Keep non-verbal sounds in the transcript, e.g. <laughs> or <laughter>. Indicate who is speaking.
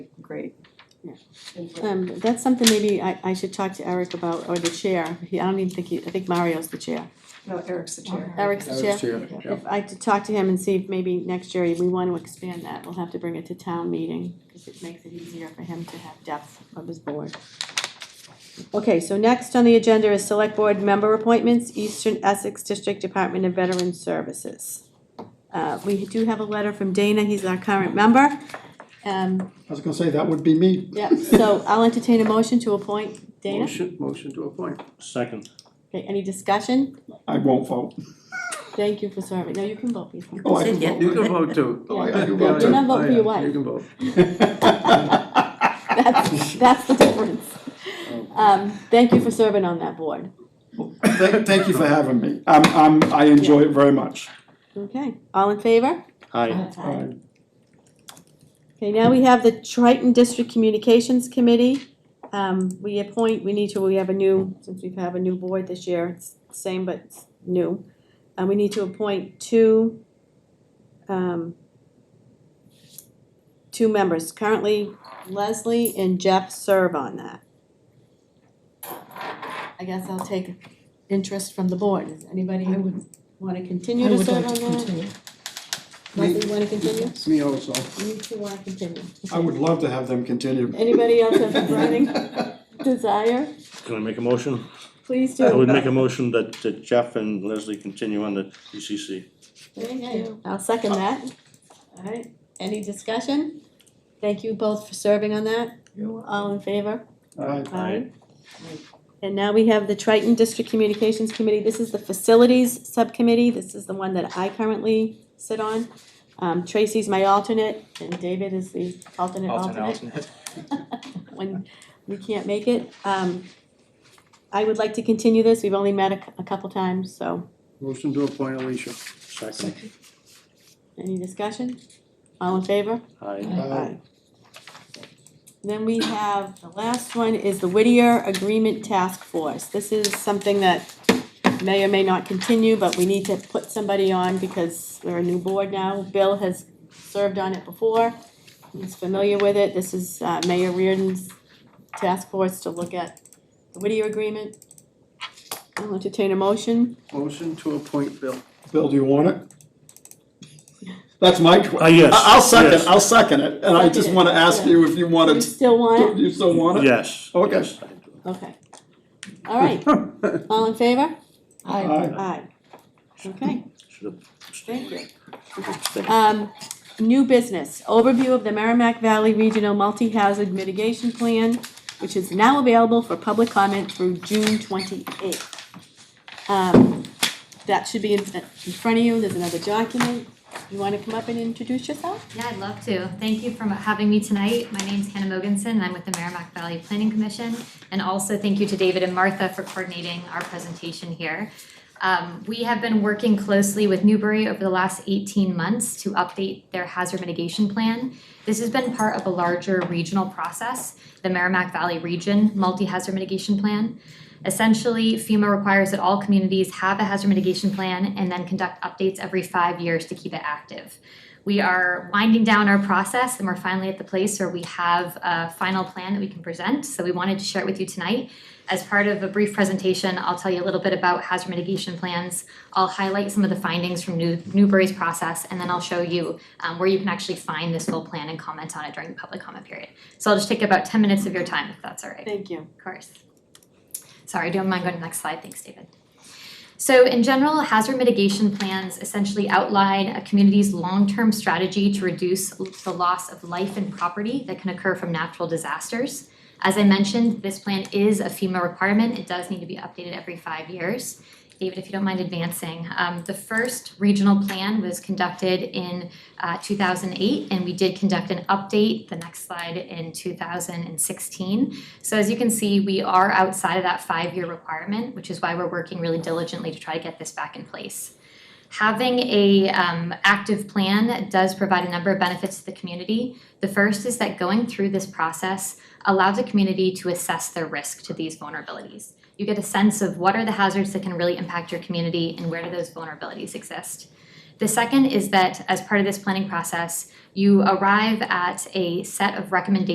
Speaker 1: great.
Speaker 2: Um, that's something maybe I, I should talk to Eric about, or the chair, he, I don't even think he, I think Mario's the chair.
Speaker 1: No, Eric's the chair.
Speaker 2: Eric's the chair.
Speaker 3: yeah.
Speaker 2: If I could talk to him and see if maybe next year we want to expand that, we'll have to bring it to town meeting, because it makes it easier for him to have depth of his board. Okay, so next on the agenda is select board member appointments, Eastern Essex District Department of Veteran Services. Uh, we do have a letter from Dana, he's our current member, um,
Speaker 3: I was gonna say, that would be me.
Speaker 2: yeah, so I'll entertain a motion to appoint Dana.
Speaker 3: Motion, motion to appoint.
Speaker 4: Second.
Speaker 2: Okay, any discussion?
Speaker 3: I won't vote.
Speaker 2: Thank you for serving, no, you can vote, please.
Speaker 3: Oh, I
Speaker 5: Said
Speaker 3: can
Speaker 5: yeah.
Speaker 3: vote.
Speaker 6: You can
Speaker 3: <laughs>
Speaker 6: vote too.
Speaker 3: Oh, I I do
Speaker 2: You
Speaker 3: vote
Speaker 2: can
Speaker 3: too.
Speaker 2: vote for your wife.
Speaker 6: You can vote.
Speaker 2: That's, that's the difference. Um, thank you for serving on that board.
Speaker 3: Thank, thank you for having me. I'm, I'm, I enjoy it very much. Um,
Speaker 2: Okay, all in favor?
Speaker 4: Aye.
Speaker 3: I-
Speaker 2: Okay, now we have the Triton District Communications Committee. Um, we appoint, we need to, we have a new, since we have a new board this year, it's same but it's new. And we need to appoint two, um, two members. Currently Leslie and Jeff serve on that. I guess I'll take interest from the board. Is anybody who would wanna continue to serve on that? Leslie, wanna continue?
Speaker 3: Me also.
Speaker 2: You two wanna continue?
Speaker 3: I would love to have them continue.
Speaker 2: Anybody else have a burning desire?
Speaker 4: Can I make a motion?
Speaker 2: Please
Speaker 4: I would
Speaker 2: do.
Speaker 4: make a motion that that Jeff and Leslie continue on the DCC.
Speaker 2: Thank you. I'll second that. Alright, any discussion? Thank you both for serving on that. All in favor?
Speaker 3: Aye.
Speaker 4: Aye.
Speaker 2: And now we have the Triton District Communications Committee. This is the Facilities Subcommittee. This is the one that I currently sit on. Um, Tracy's my alternate and David is the alternate alternate. <laughs> when we can't make it. Um, I would like to continue this, we've only met a, cou- a couple times, so,
Speaker 6: Motion to appoint Alicia.
Speaker 4: Second.
Speaker 2: any discussion? All in favor?
Speaker 4: Aye.
Speaker 3: Aye.
Speaker 2: Then we have, the last one is the Whittier Agreement Task Force. This is something that may or may not continue, but we need to put somebody on because we're a new board now. Bill has served on it before, he's familiar with it. This is uh, Mayor Reardon's task force to look at the Whittier Agreement. I'll entertain a motion.
Speaker 6: Motion to appoint Bill.
Speaker 3: Bill, do you want it? That's my
Speaker 4: Ah,
Speaker 3: question.
Speaker 4: yes.
Speaker 3: I'll second,
Speaker 4: yes,
Speaker 3: I'll second it, and I just wanna ask you if you
Speaker 2: Do you
Speaker 3: wanted,
Speaker 2: still want it?
Speaker 3: you still want it?
Speaker 4: Yes.
Speaker 3: Okay.
Speaker 4: yes, I do.
Speaker 2: Okay. All
Speaker 3: <laughs>
Speaker 2: right, all in favor?
Speaker 3: Aye.
Speaker 2: Aye. Okay.
Speaker 4: Should have.
Speaker 2: Thank you.
Speaker 4: Thank you.
Speaker 2: Um, new business, overview of the Merrimack Valley Regional Multi-Hazard Mitigation Plan, which is now available for public comment through June twenty-eighth. Um, that should be in, in front of you, there's another document. You wanna come up and introduce yourself?
Speaker 7: Yeah, I'd love to. Thank you for having me tonight. My name's Hannah Mogensen, and I'm with the Merrimack Valley Planning Commission. And also thank you to David and Martha for coordinating our presentation here. Um, we have been working closely with Newbury over the last eighteen months to update their hazard mitigation plan. This has been part of a larger regional process, the Merrimack Valley Region Multi-Hazard Mitigation Plan. Essentially, FEMA requires that all communities have a hazard mitigation plan and then conduct updates every five years to keep it active. We are winding down our process and we're finally at the place where we have a final plan that we can present. So we wanted to share it with you tonight. As part of a brief presentation, I'll tell you a little bit about hazard mitigation plans. I'll highlight some of the findings from New- Newbury's process and then I'll show you um, where you can actually find this full plan and comment on it during the public comment period. So I'll just take about ten minutes of your time if that's all right.
Speaker 2: Thank you.
Speaker 7: Of course. Sorry, don't mind going to the next slide, thanks David. So in general, hazard mitigation plans essentially outline a community's long-term strategy to reduce the loss of life and property that can occur from natural disasters. As I mentioned, this plan is a FEMA requirement, it does need to be updated every five years. David, if you don't mind advancing, um, the first regional plan was conducted in uh, two thousand eight, and we did conduct an update, the next slide, in two thousand and sixteen. So as you can see, we are outside of that five-year requirement, which is why we're working really diligently to try to get this back in place. Having a um, active plan does provide a number of benefits to the community. The first is that going through this process allows a community to assess their risk to these vulnerabilities. You get a sense of what are the hazards that can really impact your community and where do those vulnerabilities exist. The second is that as part of this planning process, you arrive at a set of recommendations